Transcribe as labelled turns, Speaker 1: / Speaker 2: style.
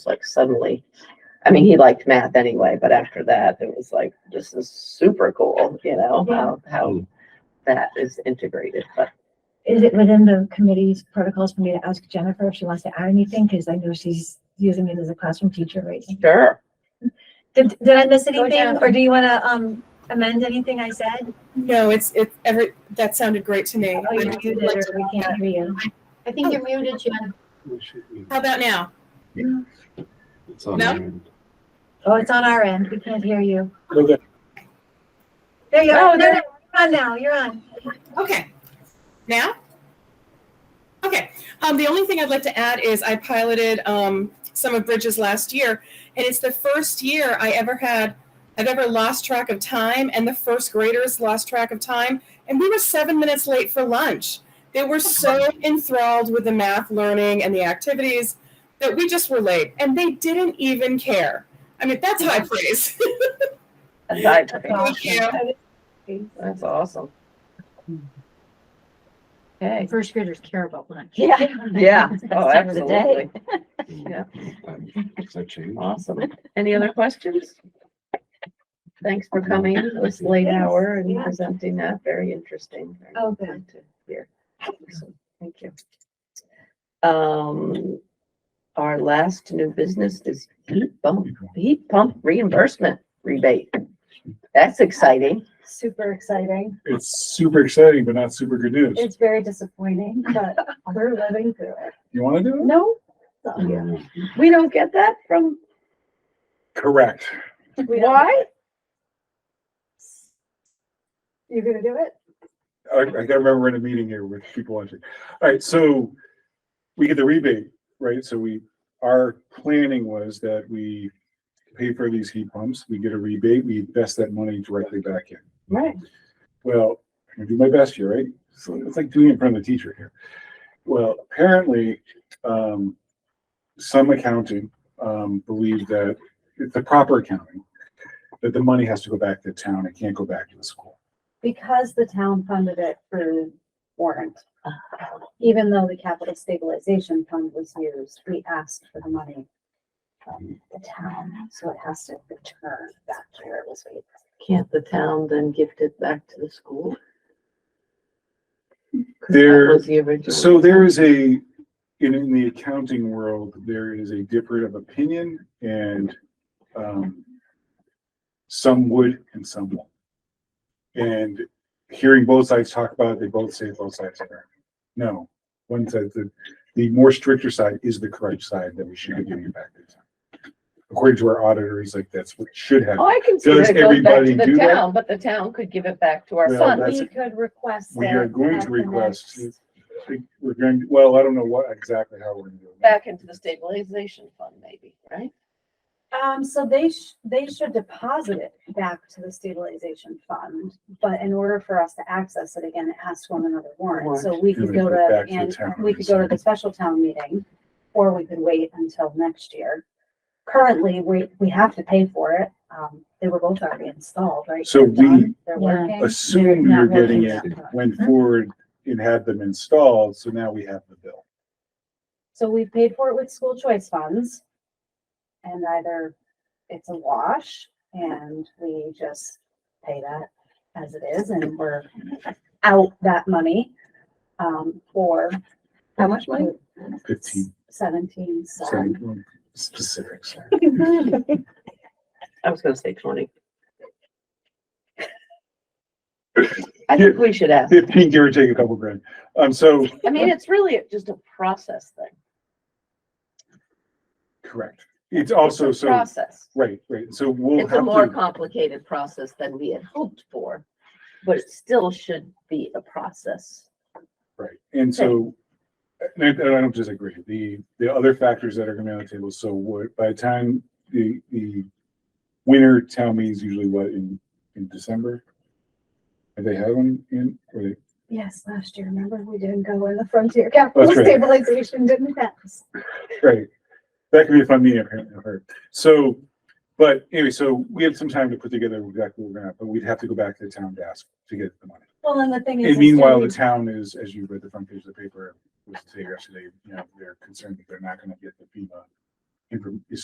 Speaker 1: It's like suddenly, I mean, he liked math anyway, but after that, it was like, this is super cool, you know, how, how that is integrated, but
Speaker 2: Is it within the committee's protocols for me to ask Jennifer if she wants to add anything? Because I know she's using it as a classroom teacher right now.
Speaker 1: sure.
Speaker 2: Did, did I miss
Speaker 3: Go
Speaker 2: anything
Speaker 3: down.
Speaker 2: or do you want to, um, amend anything I said?
Speaker 4: No, it's, it's every, that sounded great to me.
Speaker 2: Oh, you did it or we can't hear you.
Speaker 3: I think you're muted, Jen.
Speaker 4: How about now? No?
Speaker 2: Oh, it's on our end. We can't hear you.
Speaker 5: Okay.
Speaker 2: There you
Speaker 3: Oh,
Speaker 2: are.
Speaker 3: there-
Speaker 2: You're on now. You're on.
Speaker 4: Okay. Now? Okay. Um, the only thing I'd like to add is I piloted um, some of Bridges last year, and it's the first year I ever had, I've ever lost track of time, and the first graders lost track of time, and we were seven minutes late for lunch. They
Speaker 2: Oh,
Speaker 4: were so enthralled with the math learning and the activities that we just were late, and they didn't even care. I mean, that's high praise.
Speaker 1: Aside
Speaker 2: That's
Speaker 1: from-
Speaker 2: all.
Speaker 4: Thank you.
Speaker 1: That's awesome. Okay,
Speaker 6: First graders care about lunch.
Speaker 1: yeah, yeah, oh,
Speaker 6: Time of the day.
Speaker 1: absolutely,
Speaker 7: Yeah. Does that change?
Speaker 1: awesome. Any other questions? Thanks for coming at this late hour and
Speaker 2: Yes.
Speaker 1: presenting that, very interesting. Very
Speaker 2: Oh, good.
Speaker 1: to hear. Awesome. Thank you. Um, our last new business is heat pump, heat pump reimbursement rebate. That's exciting.
Speaker 8: super exciting.
Speaker 5: It's super exciting, but not super good news.
Speaker 8: It's very disappointing, but we're living through it.
Speaker 5: You want to do it?
Speaker 8: No,
Speaker 7: Mm,
Speaker 1: We don't get that from,
Speaker 5: Correct.
Speaker 8: we don't.
Speaker 1: why?
Speaker 8: You're gonna do it?
Speaker 5: I, I gotta remember we're in a meeting here with people watching. All right, so we get the rebate, right? So we, our planning was that we pay for these heat pumps, we get a rebate, we invest that money directly back in.
Speaker 1: Right.
Speaker 5: Well, I'm gonna do my best here, right? So it's like doing it in front of the teacher here. Well, apparently, um, some accounting, um, believe that it's the proper accounting, that the money has to go back to town. It can't go back to the school.
Speaker 8: Because the town funded it through warrant. Even though the capital stabilization fund was used, we asked for the money from the town, so it has to return back to where it was paid.
Speaker 1: Can't the town then gift it back to the school? 'Cause that
Speaker 5: There-
Speaker 1: was the original.
Speaker 5: So there is a, in, in the accounting world, there is a difference of opinion and, um, some would and some won't. And hearing both sides talk about it, they both say both sides are, right. no, one said the, the more stricter side is the correct side that we should be giving it back. to. According to our auditor, he's like, that's what should
Speaker 1: Oh,
Speaker 5: happen.
Speaker 1: I can see
Speaker 5: Does
Speaker 1: that it goes back
Speaker 5: everybody
Speaker 1: to the
Speaker 5: do that?
Speaker 1: town, but the town could give it back to our
Speaker 5: Well,
Speaker 1: fund.
Speaker 5: that's-
Speaker 8: We could request.
Speaker 5: We
Speaker 8: that
Speaker 5: are going
Speaker 8: at
Speaker 5: to
Speaker 8: the
Speaker 5: request-
Speaker 8: next-
Speaker 5: We're going, well, I don't know what, exactly how we're gonna do it.
Speaker 1: back into the stabilization fund maybe, right?
Speaker 8: Um, so they sh- they should deposit it back to the stabilization fund, but in order for us to access it again, it has to on another warrant. So we could go to,
Speaker 5: Back to the
Speaker 8: and
Speaker 5: town
Speaker 8: we could go to the special town meeting, or we could wait until next year. Currently, we, we have to pay for it. Um, they were both already installed, right?
Speaker 5: So
Speaker 8: They're done.
Speaker 5: we
Speaker 8: They're
Speaker 6: Yeah.
Speaker 8: working.
Speaker 5: Assumed we
Speaker 8: They're
Speaker 5: were
Speaker 8: not
Speaker 5: getting it
Speaker 8: working.
Speaker 5: went forward and had them installed, so now we have the bill.
Speaker 8: So we paid for it with school choice funds. And either it's a wash and we just pay that as it is and we're out that money. Um, or
Speaker 3: How much money?
Speaker 5: Fifteen,
Speaker 8: seventeen,
Speaker 5: sorry,
Speaker 8: so
Speaker 5: specifics.
Speaker 1: I was gonna say twenty. I think we should ask.
Speaker 5: Fifteen, give or take a couple grand. Um, so,
Speaker 1: I mean, it's really just a process thing.
Speaker 5: correct. It's also,
Speaker 1: It's a
Speaker 5: so,
Speaker 1: Process.
Speaker 5: right, right, so we'll
Speaker 1: It's a
Speaker 5: have
Speaker 1: more
Speaker 5: to,
Speaker 1: complicated process than we had hoped for, but it still should be a process.
Speaker 5: right, and so. And I, and I don't disagree. The, the other factors that are gonna be on the table, so what, by the time the, the winter town meeting is usually what, in, in December? Have they had one in, or they-
Speaker 8: yes, last year, remember, we didn't go in the frontier capital
Speaker 5: That's right.
Speaker 8: stabilization didn't pass.
Speaker 5: Right. That could be a fun meeting, apparently, I've heard. So, but anyway, so we have some time to put together exactly what we're gonna, have, but we'd have to go back to the town to ask to get the money.
Speaker 8: Well, and the thing is.
Speaker 5: And
Speaker 8: is
Speaker 5: meanwhile,
Speaker 8: we-
Speaker 5: the town is, as you read the front page of the paper, was today or yesterday, you know, they're concerned that they're not gonna get the FEMA inform- is